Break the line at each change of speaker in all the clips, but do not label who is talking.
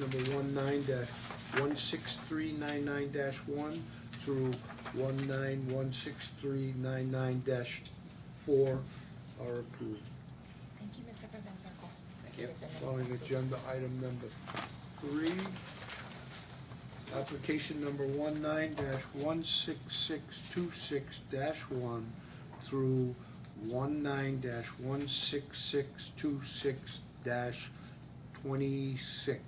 number 19-16399-1 through 19-16399-4 are approved.
Thank you, Mr. Francisco.
Thank you.
Calling agenda item number three. Application number one one six six two six one through one one six six two six twenty-six.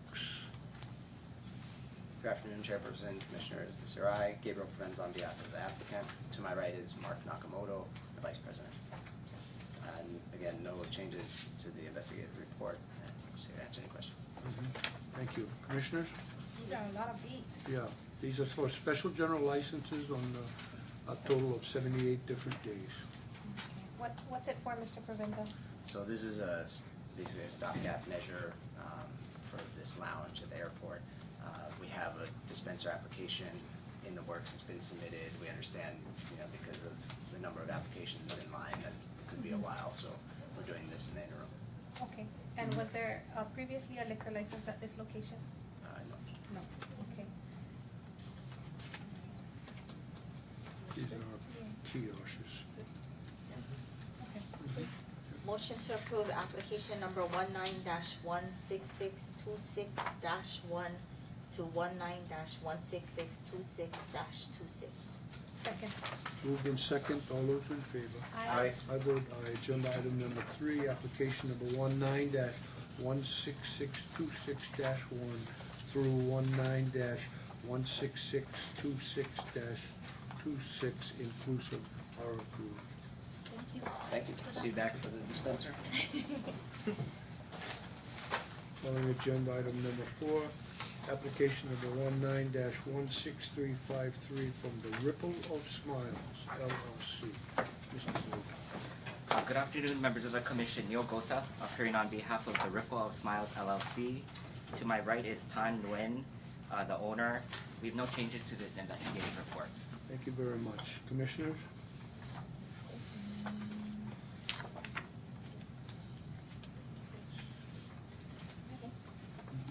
Good afternoon, Chairperson, Commissioners, Mr. I, Gabriel Provenz on behalf of the applicant. To my right is Mark Nakamoto, the Vice President. And again, no changes to the investigative report, and just here to answer any questions.
Mm-hmm. Thank you. Commissioners?
These are a lot of dates.
Yeah, these are for special general licenses on uh, a total of seventy-eight different days.
Okay. What, what's it for, Mr. Provenza?
So this is a, s- basically a stopgap measure um, for this lounge at the airport. Uh, We have a dispenser application in the works, it's been submitted. We understand, you know, because of the number of applications in line, that it could be a while, so we're doing this in the interim.
Okay, and was there uh, previously a liquor license at this location?
Uh, no.
No. Okay.
These are kiosks.
Okay.
Mm-hmm.
Motion to approve application number one nine dash one six six two six dash one to one nine dash one six six two six dash two six.
Second.
Moved in second, all those in favor?
Aye.
I vote aye. Agenda item number three, application number one nine dash one six six two six dash one through one nine dash one six six two six dash two six inclusive are approved.
Thank you.
Thank you. See you back for the dispenser.
Calling agenda item number four, application number one nine dash one six three five three from the Ripple of Smiles LLC. Mr. Booth.
Uh, Good afternoon, members of the commission. Neil Gota, appearing on behalf of the Ripple of Smiles LLC. To my right is Tan Nguyen, uh, the owner. We have no changes to this investigative report.
Thank you very much. Commissioners?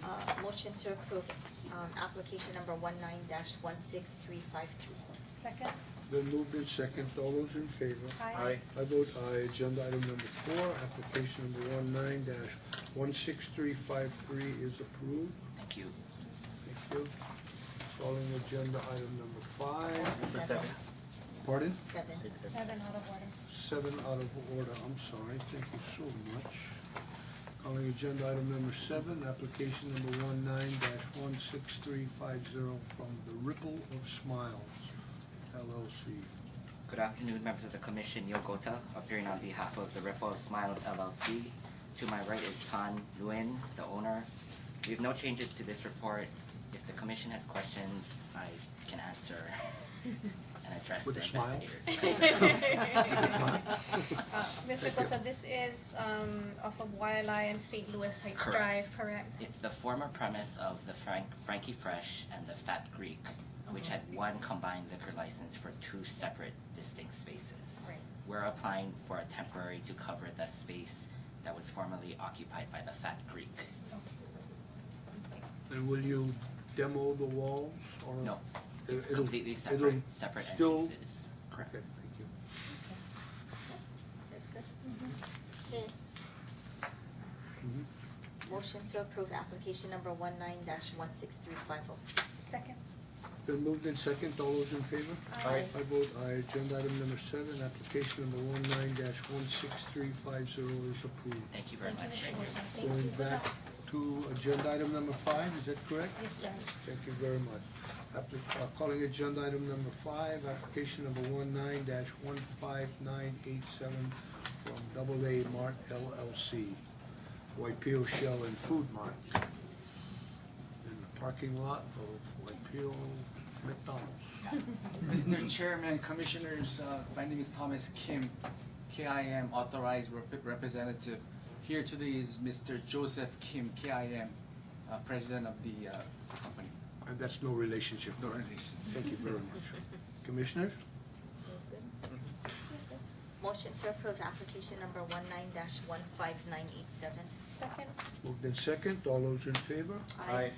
Uh, motion to approve, um, application number one nine dash one six three five three.
Second.
Then moved in second, all those in favor?
Aye.
I vote aye, agenda item number four, application number one nine dash one six three five three is approved.
Thank you.
Thank you. Calling agenda item number five,
Number seven.
pardon?
Seven.
Seven out of order.
Seven out of order, I'm sorry, thank you so much. Calling agenda item number seven, application number one nine dash one six three five zero from the Ripple of Smiles LLC.
Good afternoon, members of the commission. Neil Gota, appearing on behalf of the Ripple of Smiles LLC. To my right is Tan Nguyen, the owner. We have no changes to this report. If the commission has questions, I can answer and address the
With a smile?
investigators.
Uh, Mr.
Thank you.
Gota, this is um, off of Wildlife and St. Louis Heights
Correct.
Drive, correct?
It's the former premise of the Frank, Frankie Fresh and the Fat Greek, which had one combined liquor license for two separate distinct spaces.
Right.
We're applying for a temporary to cover the space that was formerly occupied by the Fat Greek.
And will you demo the walls or?
No,
It-
it's
it'll-
completely
it'll
separate, separate
still-
entrances.
Okay,
Correct.
thank you.
That's good. Okay,
Mhm.
motion to approve application number one nine dash one six three five oh.
Second.
Been moved in second, all those in favor?
Aye.
I vote aye, agenda item number seven, application number one nine dash one six three five zero is approved.
Thank you very much.
Mr. Gota.
Going back to agenda item number five, is that correct?
Yes, sir.
Thank you very much. Appli- uh, Calling agenda item number five, application number one nine dash one five nine eight seven from Double A Mart LLC, Waipio Shell and Food Mart, in the parking lot of Waipio McDonald's.
Mr. Chairman, Commissioners, uh, my name is Thomas Kim, KIM Authorized rep- Representative. Here today is Mr. Joseph Kim, KIM, uh, President of the uh, company.
And that's no relationship.
No relation.
Thank you very much. Commissioners?
Motion to approve application number one nine dash one five nine eight seven.
Second.
Moved in second, all those in favor?
Aye.